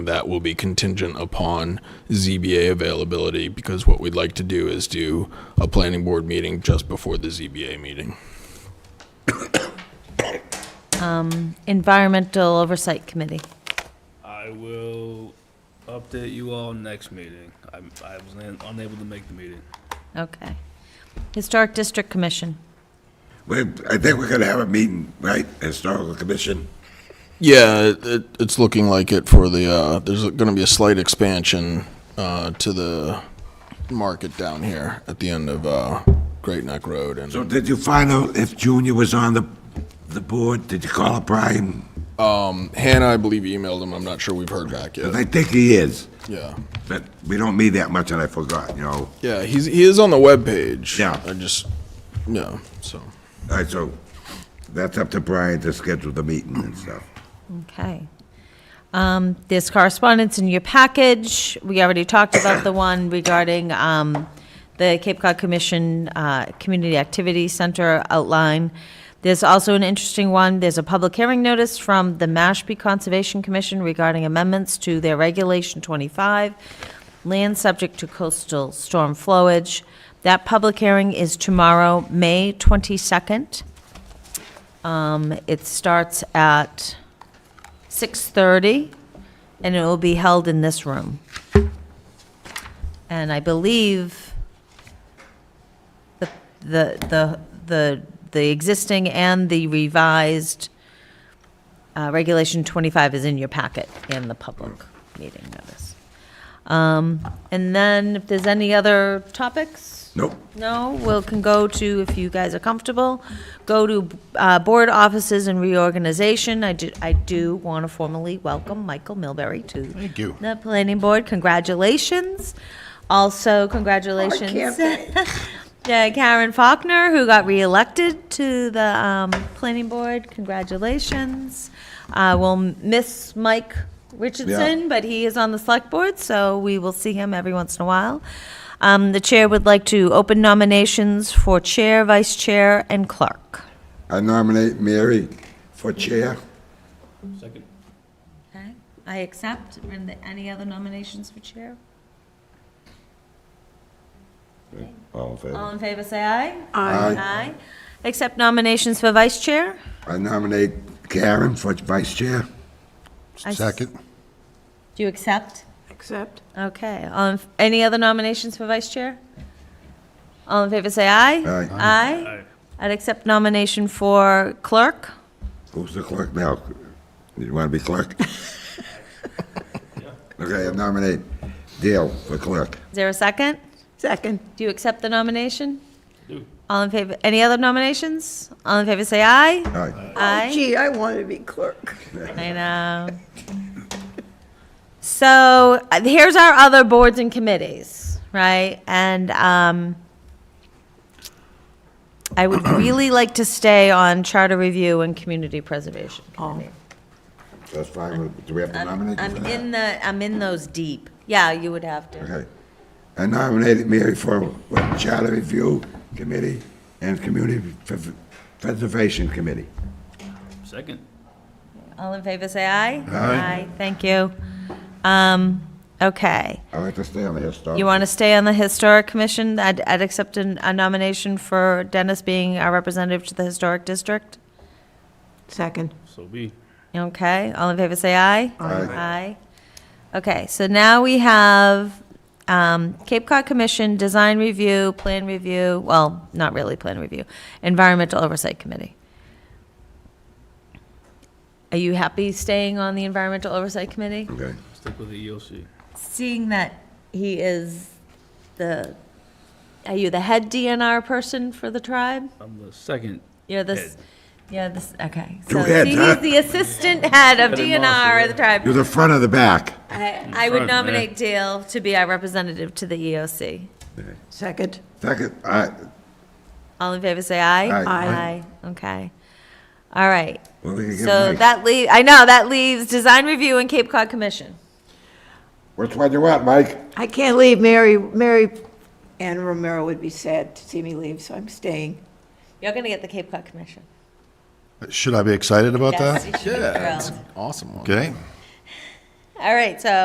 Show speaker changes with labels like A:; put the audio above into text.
A: that will be contingent upon ZBA availability because what we'd like to do is do a planning board meeting just before the ZBA meeting.
B: Environmental Oversight Committee.
C: I will update you all next meeting. I'm, I was un- unable to make the meeting.
B: Okay. Historic District Commission.
D: We, I think we're gonna have a meeting, right, Historical Commission?
A: Yeah, it, it's looking like it for the, uh, there's going to be a slight expansion, uh, to the market down here at the end of, uh, Great Neck Road
D: So
A: and,
D: did you find out if Junior was on the, the board? Did you call up Brian?
A: um, Hannah, I believe emailed him. I'm not sure we've heard back
D: But
A: yet.
D: I think he is,
A: Yeah.
D: but we don't meet that much, and I forgot, you know?
A: Yeah, he's, he is on the webpage.
D: Yeah.
A: I just, yeah, so.
D: All right, so that's up to Brian to schedule the meeting and stuff.
B: Okay. Um, There's correspondence in your package. We already talked about the one regarding um, the Cape Cod Commission uh, Community Activity Center outline. There's also an interesting one. There's a public hearing notice from the Mashpee Conservation Commission regarding amendments to their Regulation 25, land subject to coastal storm flowage. That public hearing is tomorrow, May 22nd. Um, It starts at 6:30, and it will be held in this room. And I believe the, the, the, the the existing and the revised uh, Regulation 25 is in your packet and the public meeting notice. Um, And then, if there's any other topics?
D: Nope.
B: No, we'll can go to, if you guys are comfortable, go to uh, board offices and reorganization. I do, I do want to formally welcome Michael Milbury to
A: Thank you.
B: the planning board. Congratulations. Also, congratulations. Yeah, Karen Faulkner, who got reelected to the um, planning board. Congratulations. Uh, We'll miss Mike Richardson, but he is on the select board, so we will see him every once in a while. Um, The chair would like to open nominations for chair, vice chair, and clerk.
D: I nominate Mary for chair.
C: Second.
B: Okay, I accept. Are there Any other nominations for chair?
D: All in
B: All
D: favor?
B: in favor, say aye.
D: Aye.
B: Aye. Accept nominations for vice chair?
D: I nominate Karen for vice chair.
B: I s-
E: Second.
B: Do you accept?
F: Accept.
B: Okay. All in- Any other nominations for vice chair? All in favor, say aye.
D: Aye.
B: Aye. I'd accept nomination for clerk.
D: Who's the clerk now? You want to be clerk? Okay, I nominate Dale for clerk.
B: Is there a second?
F: Second.
B: Do you accept the nomination? All in favor, any other nominations? All in favor, say aye.
D: Aye.
B: Aye.
F: Oh, Gee, I want to be clerk.
B: I know. So uh, here's our other boards and committees, right? And um, I would really like to stay on charter review and community preservation.
F: Oh,
D: That's fine. Do we have to
B: I'm
D: nominate? you for
B: I'm
D: that?
B: in the, I'm in those deep. Yeah, you would have to.
D: Okay. I nominated Mary for Charter Review Committee and Community Pre- Preservation Committee.
C: Second.
B: All in favor, say aye.
D: Aye.
B: Thank you. Um, okay.
D: I like to stay on the historic.
B: You want to stay on the Historic Commission? I'd, I'd accept an- a nomination for Dennis being our representative to the Historic District.
F: second.
C: So be.
B: Okay, all in favor, say aye.
D: Aye.
B: Aye. Okay, so now we have um, Cape Cod Commission, Design Review, Plan Review, well, not really Plan Review, Environmental Oversight Committee. Are you happy staying on the Environmental Oversight Committee?
D: Okay.
C: Stick with the E EOC.
B: Seeing that he is the, are you the head DNR person for the tribe?
C: I'm the second.
B: You're this, yeah, this, okay.
D: Two
B: So
D: heads,
B: see,
D: huh?
B: he's the assistant head of
C: Head
B: DNR
C: and master,
B: of the tribe.
D: You're the front of the back.
B: I, I would
C: front, man.
B: nominate Dale to be our representative to the E EOC.
F: Second.
D: Second, I,
B: All in favor, say aye.
D: Aye.
B: Aye,
D: Aye.
B: okay. All right,
D: well, we can give
B: so
D: Mike.
B: that leaves. I know, that leaves Design Review and Cape Cod Commission.
D: Which one you want, Mike?
F: I can't leave. Mary, Mary Ann Romero would be sad to see me leave, so I'm staying.
B: You're gonna get the Cape Cod Commission.
E: Should I be excited about
B: Yes,
E: that?
B: you should be thrilled.
A: Awesome one.
E: Okay.
B: All right, so